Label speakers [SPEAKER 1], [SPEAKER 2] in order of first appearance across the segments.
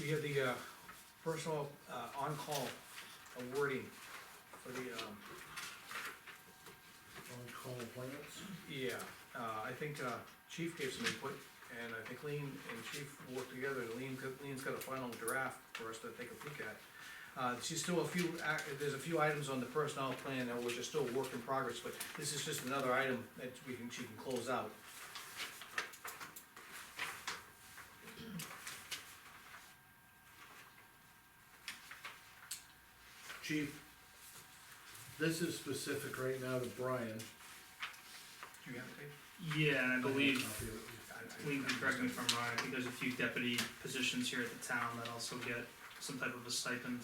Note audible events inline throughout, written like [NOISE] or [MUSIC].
[SPEAKER 1] we have the, uh, personal, uh, on-call awarding for the, um,
[SPEAKER 2] On-call appointments?
[SPEAKER 1] yeah, uh, I think, uh, chief gave some input, and I think Lean and chief worked together, Lean, Lean's got a final draft for us to take a peek at. Uh, she's still a few, ac- there's a few items on the personnel plan that which are still work in progress, but this is just another item that we can, she can close out.
[SPEAKER 2] Chief, this is specific right now to Brian.
[SPEAKER 1] Do you have a tape?
[SPEAKER 3] Yeah, and I believe,
[SPEAKER 1] I- I-
[SPEAKER 3] Lean can correct me if I'm wrong, I think there's a few deputy positions here at the town that also get some type of a stipend.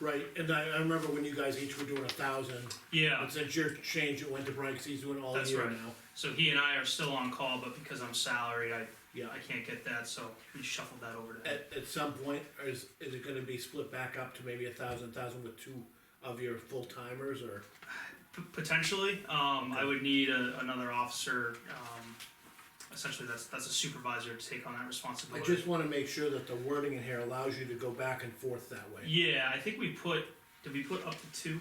[SPEAKER 2] Right, and I, I remember when you guys each were doing a thousand,
[SPEAKER 3] Yeah,
[SPEAKER 2] but since your change, it went to Brian, cause he's doing all
[SPEAKER 3] That's
[SPEAKER 2] year
[SPEAKER 3] right.
[SPEAKER 2] now.
[SPEAKER 3] so he and I are still on call, but because I'm salaried, I,
[SPEAKER 2] Yeah,
[SPEAKER 3] I can't get that, so we shuffled that over to him.
[SPEAKER 2] at, at some point, is, is it gonna be split back up to maybe a thousand, thousand with two of your full timers, or?
[SPEAKER 3] P- Potentially, um, I would need a, another officer, um, essentially that's, that's a supervisor to take on that
[SPEAKER 2] I
[SPEAKER 3] responsibility.
[SPEAKER 2] just wanna make sure that the wording in here allows you to go back and forth that way.
[SPEAKER 3] Yeah, I think we put, did we put up to two?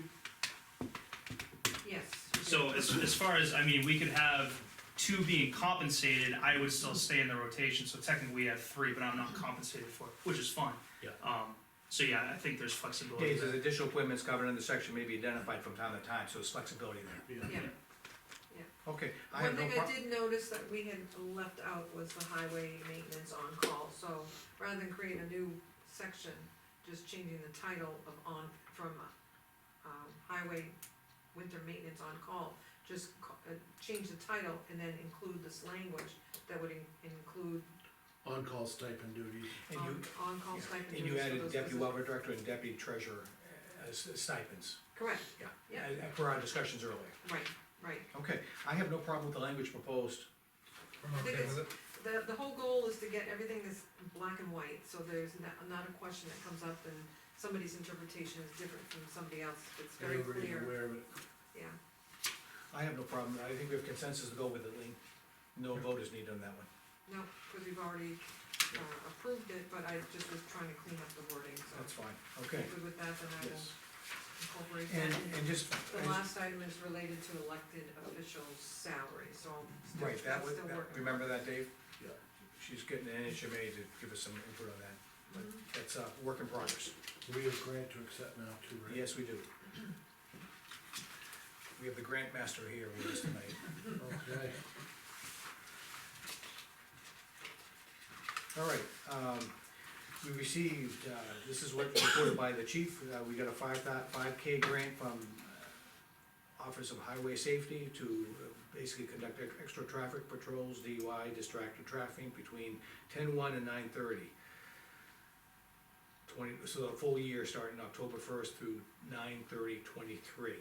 [SPEAKER 4] Yes.
[SPEAKER 3] So as, as far as, I mean, we could have two being compensated, I would still stay in the rotation, so technically we have three, but I'm not compensated for it, which is fine.
[SPEAKER 2] Yeah.
[SPEAKER 3] Um, so yeah, I think there's flexibility
[SPEAKER 1] Days as
[SPEAKER 3] there.
[SPEAKER 1] additional appointments covered in the section may be identified from time to time, so it's flexibility there.
[SPEAKER 4] Yeah,
[SPEAKER 1] Okay, I
[SPEAKER 4] one
[SPEAKER 1] have no
[SPEAKER 4] thing
[SPEAKER 1] problem.
[SPEAKER 4] I did notice that we had left out was the highway maintenance on-call, so rather than create a new section, just changing the title of on, from, um, highway winter maintenance on-call, just ca- uh, change the title and then include this language that would in- include
[SPEAKER 2] On-call stipend duties.
[SPEAKER 1] And you,
[SPEAKER 4] on, on-call
[SPEAKER 1] yeah,
[SPEAKER 4] stipend.
[SPEAKER 1] and you
[SPEAKER 4] duties for
[SPEAKER 1] added
[SPEAKER 4] those
[SPEAKER 1] deputy
[SPEAKER 4] positions.
[SPEAKER 1] welfare director and deputy treasurer as as stipends,
[SPEAKER 4] Correct,
[SPEAKER 1] yeah.
[SPEAKER 4] Yeah.
[SPEAKER 1] uh, Per our discussions earlier.
[SPEAKER 4] right, right.
[SPEAKER 1] Okay, I have no problem with the language proposed.
[SPEAKER 4] I think it's, the, the whole goal is to get everything that's black and white, so there's not, not a question that comes up and somebody's interpretation is different from somebody else, it's very
[SPEAKER 2] Everybody's
[SPEAKER 4] clear,
[SPEAKER 2] aware of it.
[SPEAKER 4] yeah.
[SPEAKER 1] I have no problem, I think we have consensus to go with it, Lean. No vote is needed on that one.
[SPEAKER 4] No, because we've already, uh, approved it, but I just was trying to clean up the wording, so.
[SPEAKER 1] That's fine,
[SPEAKER 4] if
[SPEAKER 1] okay.
[SPEAKER 4] you're Good with that, then I will
[SPEAKER 1] Yes.
[SPEAKER 4] incorporate
[SPEAKER 1] And,
[SPEAKER 4] that.
[SPEAKER 1] and just,
[SPEAKER 4] The last item is related to elected officials' salary, so I'm still,
[SPEAKER 1] right, that
[SPEAKER 4] that's
[SPEAKER 1] was,
[SPEAKER 4] still
[SPEAKER 1] that-
[SPEAKER 4] working.
[SPEAKER 1] remember that, Dave?
[SPEAKER 2] Yeah.
[SPEAKER 1] She's getting an NHMA to give us some input on that, but
[SPEAKER 4] Mm-hmm.
[SPEAKER 1] that's a work in progress.
[SPEAKER 2] We have grant to accept now too, right?
[SPEAKER 1] Yes,
[SPEAKER 4] [CLEARS THROAT]
[SPEAKER 1] we do. We have the grant master here with us tonight.
[SPEAKER 2] Okay.
[SPEAKER 1] All right, um, we received, uh, this is what reported by the chief, uh, we got a five thou- five K grant from uh, Office of Highway Safety to uh, basically conduct ex- extra traffic patrols, DUI, distracted traffic between ten one and nine thirty. Twenty, so the full year starting October first through nine thirty twenty-three.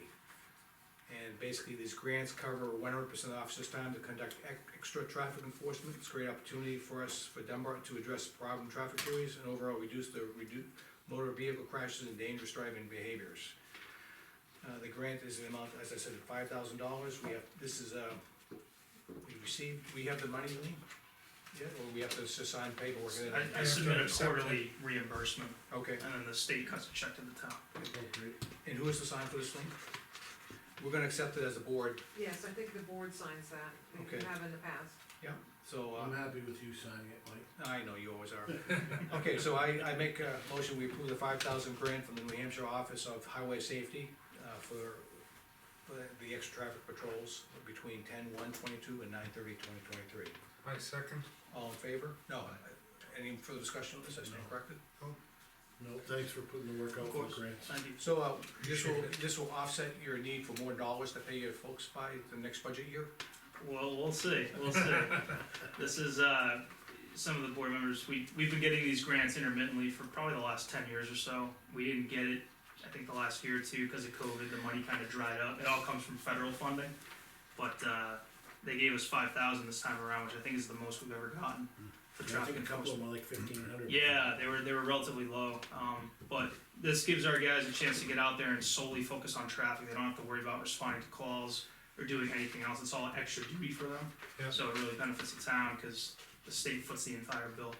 [SPEAKER 1] And basically, these grants cover one hundred percent officers' time to conduct ec- extra traffic enforcement. It's a great opportunity for us, for Dunbar, to address problem traffic theories and overall reduce the redu- motor vehicle crashes and dangerous driving behaviors. Uh, the grant is an amount, as I said, five thousand dollars. We have, this is, uh, we received, we have the money, Lean? Yeah, or we have to s- sign paperwork? and then-
[SPEAKER 3] I, I submit a quarterly reimbursement,
[SPEAKER 1] Okay,
[SPEAKER 3] and then the state cuts a check to the town.
[SPEAKER 2] Oh, great.
[SPEAKER 1] and who is to sign for this thing? We're gonna accept it as a board,
[SPEAKER 4] Yes, I think the board signs that, if
[SPEAKER 1] Okay.
[SPEAKER 4] you have in the past.
[SPEAKER 1] so, uh.
[SPEAKER 2] I'm happy with you signing it, Mike.
[SPEAKER 1] I know you always are. [LAUGHS] Okay, so I, I make a motion, we approve the five thousand grant from the New Hampshire Office of Highway Safety, uh, for, for the extra traffic patrols between ten, one, twenty-two and nine thirty, twenty twenty-three.
[SPEAKER 5] My second,
[SPEAKER 1] All in favor? No, any further discussion on this, I stand corrected?
[SPEAKER 2] No, thanks for putting the work out
[SPEAKER 3] Of
[SPEAKER 2] for
[SPEAKER 3] course.
[SPEAKER 2] grants.
[SPEAKER 3] Thank you.
[SPEAKER 1] So, uh, this will, this will offset your need for more dollars to pay your folks by the next budget year?
[SPEAKER 3] Well, we'll see, we'll see. This is, uh, some of the board members, we, we've been getting these grants intermittently for probably the last ten years or so. We didn't get it, I think, the last year or two, because of COVID, the money kind of dried up. It all comes from federal funding. But, uh, they gave us five thousand this time around, which I think is the most we've ever gotten for
[SPEAKER 2] Hmm. I
[SPEAKER 3] traffic
[SPEAKER 2] think a couple of
[SPEAKER 3] enforcement.
[SPEAKER 2] them are like fifteen hundred.
[SPEAKER 3] Yeah, they were, they were relatively low, um, but this gives our guys a chance to get out there and solely focus on traffic. They don't have to worry about responding to calls or doing anything else. It's all extra duty for them.
[SPEAKER 5] yeah,
[SPEAKER 3] So it really benefits the town, cause the state foots the entire bill.